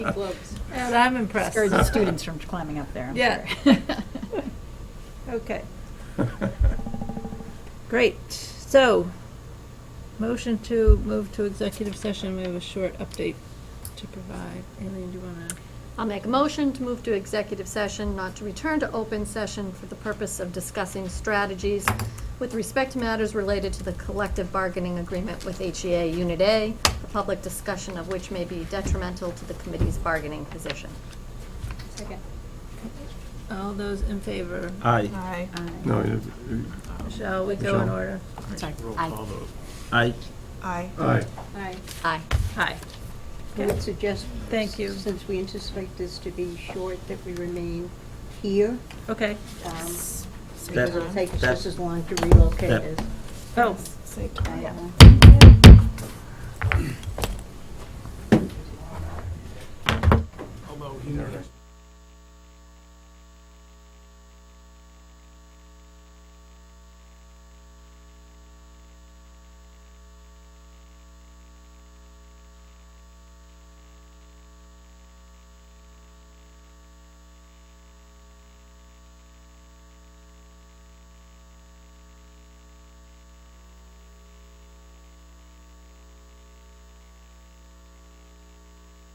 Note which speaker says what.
Speaker 1: Globes.
Speaker 2: And I'm impressed.
Speaker 3: Discourage the students from climbing up there. I'm
Speaker 2: Yeah.
Speaker 3: sure.
Speaker 2: Okay, great. So, motion to move to executive session. We have a short update to provide. Aileen, do you want to?
Speaker 1: I'll make a motion to move to executive session, not to return to open session for the purpose of discussing strategies with respect to matters related to the collective bargaining agreement with HEA Unit A, the public discussion of which may be detrimental to the committee's bargaining position.
Speaker 2: All those in favor?
Speaker 4: Aye.
Speaker 5: No, it-
Speaker 2: Shall we go in
Speaker 5: Michelle?
Speaker 2: order?
Speaker 3: Sorry.
Speaker 1: Aye.
Speaker 4: Aye.
Speaker 6: Aye.
Speaker 5: aye.
Speaker 1: Aye.
Speaker 2: Aye.
Speaker 7: I would suggest.
Speaker 2: Thank you.
Speaker 7: Since we anticipate this to be short, that we remain here.
Speaker 2: Okay.
Speaker 7: um,
Speaker 4: That-
Speaker 7: Because it'll take us
Speaker 4: that-
Speaker 7: just as long to relocate
Speaker 4: that-
Speaker 7: as.
Speaker 2: Oh,
Speaker 7: I-
Speaker 5: Internet.